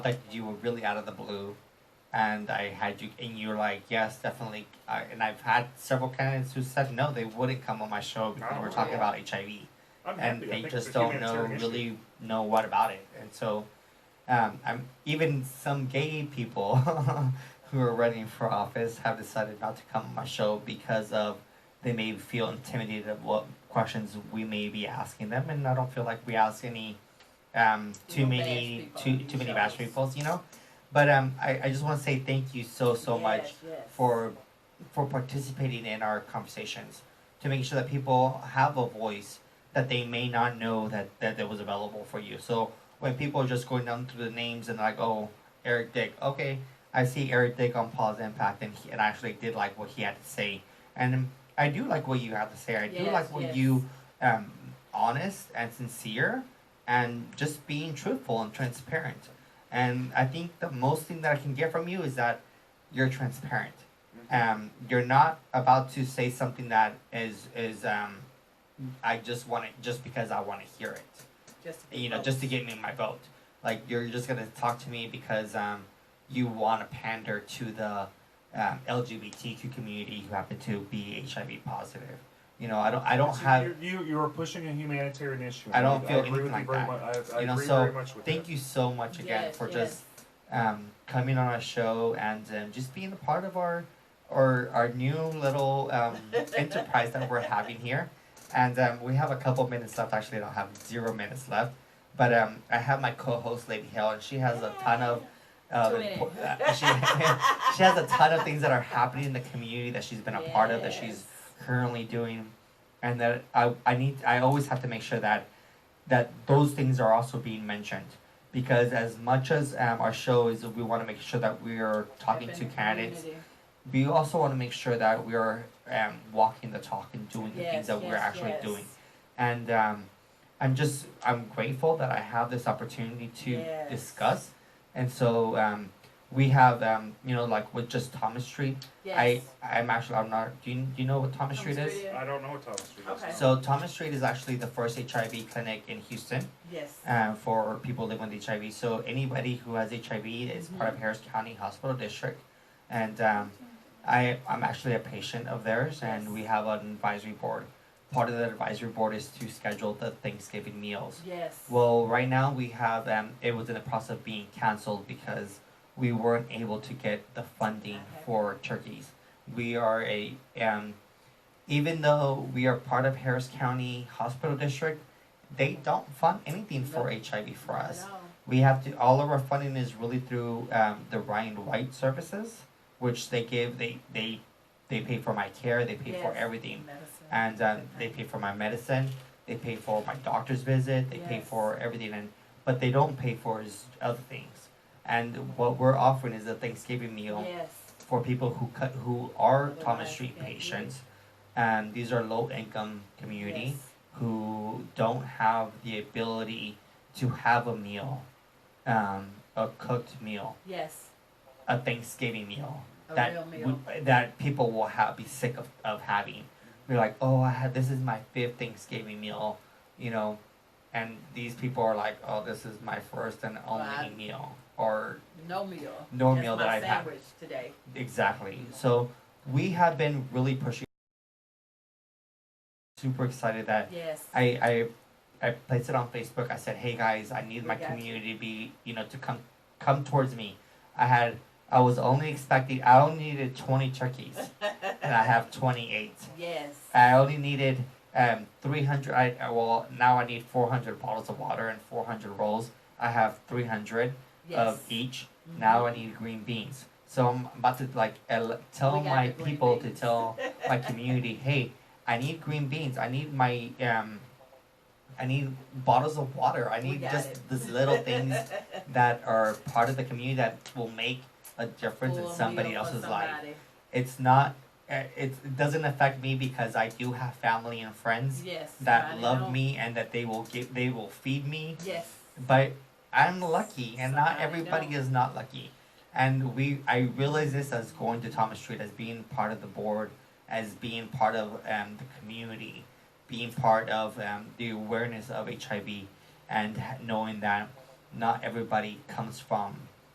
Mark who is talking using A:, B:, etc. A: that you were really out of the blue, and I had you, and you were like, yes, definitely. I, and I've had several candidates who said no, they wouldn't come on my show because
B: Oh,
A: we're talking
B: yeah.
A: about HIV,
B: I'm
A: and
B: happy. I
A: they
B: think
A: just
B: it's a
A: don't know
B: humanitarian issue.
A: really know what about it. And so, um, I'm even some gay people who are running for office have decided not to come on my show because of they may feel intimidated of what questions we may be asking them, and I don't feel like we ask any um, too
C: don't
A: many
C: bash
A: too
C: people,
A: too
C: you
A: many
C: show
A: bash
C: us.
A: peoples, you know. But um, I, I just want to say thank you so so much for for participating in our conversations to make sure that people have a voice that they may not know that that, that was available for you. So when people are just going down through the names and like, oh, Eric Dick, okay, I see Eric Dick on Paul's Impact, and he, and I actually did like what he had to say, and I do like what you had to say. I do
C: Yes,
A: like what
C: yes.
A: you um honest and sincere, and just being truthful and transparent. And I think the most thing that I can get from you is that you're transparent. Um, you're not about to say something that is is um, I just want it just because I want to hear it
C: Just to be
A: you know,
C: votes.
A: just to get me my vote. Like you're just gonna talk to me because um, you want to pander to the um, LGBTQ community who happen to be HIV positive. You know, I don't, I don't
B: So
A: have.
B: you're- you. You are pushing a humanitarian issue.
A: I don't feel
B: I agree
A: anything
B: with
A: like
B: you very
A: that.
B: Much. I, I
A: You know,
B: agree
A: so
B: very much with
A: Thank you so much again
C: Yes,
A: for
C: yes.
A: just um, coming on our show and um, just being a part of our our, our new little um, enterprise that we're having here. And um, we have a couple minutes left. Actually, I don't have zero minutes left. But um, I have my co-host, Lady Hill, and she has a ton of. Uh,
C: Two minutes.
A: uh, she, she has a ton of things that are happening in the community that she's been a part of that she's
C: Yes.
A: currently doing and that I, I need I always have to make sure that that those things are also being mentioned because as much as um, our show is we want to make sure that we are talking
C: Helping
A: to
C: the
A: candidates
C: community.
A: we also want to make sure that we are um, walking the talk and doing the things
C: Yes,
A: that we're
C: yes,
A: actually
C: yes.
A: doing and um, I'm just I'm grateful that I have this opportunity to
C: Yes.
A: discuss and so um, we have um, you know like with just Thomas Street
C: Yes.
A: I I'm actually I'm not do you, do you know what Thomas,
C: Thomas
A: Street is
C: Street,
B: you. I don't know what Thomas Street is.
C: Okay.
B: no.
A: so Thomas Street is actually the first HIV clinic in Houston
C: Yes.
A: uh, for people living with HIV. So anybody who has HIV is part of Harris County Hospital District, and um, I I'm actually a patient of theirs,
C: Yes.
A: and we have an advisory board. Part of the advisory board is to schedule the Thanksgiving meals.
C: Yes.
A: Well, right now we have um, it was in the process of being canceled because we weren't able to get the funding
C: Okay.
A: for turkeys. We are a um, even though we are part of Harris County Hospital District, they don't fund anything for HIV for
C: I
A: us.
C: know.
A: We have to all of our funding is really through um, the Ryan White services, which they give they they they pay for my care, they pay for
C: Yes.
A: everything
C: Medicine.
A: and um, they pay for my medicine. They pay for my doctor's visit. They pay
C: Yes.
A: for everything, and but they don't pay for is other things. And what we're offering is a Thanksgiving meal
C: Yes.
A: for people who cut, who are
C: Otherwise,
A: Thomas Street
C: yeah, yeah.
A: patients, and these are low income community
C: Yes.
A: who don't have the ability to have a meal, um, a cooked meal,
C: Yes.
A: a Thanksgiving meal
C: A
A: that
C: real meal.
A: would- that people will have be sick of, of having. They're like, oh, I had this is my fifth Thanksgiving meal, you know, and these people are like, oh, this is my first and only
C: Wow.
A: meal, or
C: no meal.
A: no
C: That's
A: meal
C: my
A: that I've had.
C: sandwich today.
A: Exactly. So we have been really pushing. Super excited that
C: Yes.
A: I I I placed it on Facebook. I said, "Hey guys, I need
C: We
A: my
C: got
A: community to be, you know, to come come towards me." I had I was only expecting I only needed 20 turkeys and I have 28.
C: yes.
A: I only needed um 300 I I- well, now I need 400 bottles of water and 400 rolls. I have 300
C: yes. Mm-hmm.
A: of each. Now I need green beans. So I'm about to like el- tell
C: We got
A: my
C: the green
A: people to
C: beans.
A: tell my community, hey, I need green beans. I need my um, I need bottles of water. I
C: We
A: need
C: got
A: just
C: it.
A: these little things that are part of the community that will make a difference
C: Full
A: in somebody
C: meal for
A: else's life.
C: somebody.
A: It's not. eh, It's, it doesn't affect me because I do have family and friends
C: Yes.
A: that
C: I know.
A: love me and that they will give. They will feed me
C: Yes.
A: but I'm lucky, and not
C: Somebody
A: everybody
C: don't.
A: is not lucky. And we, I realize this as going to Thomas Street, as being part of the board, as being part of um, the community, being part of um, the awareness of HIV, and ha- knowing that not everybody comes from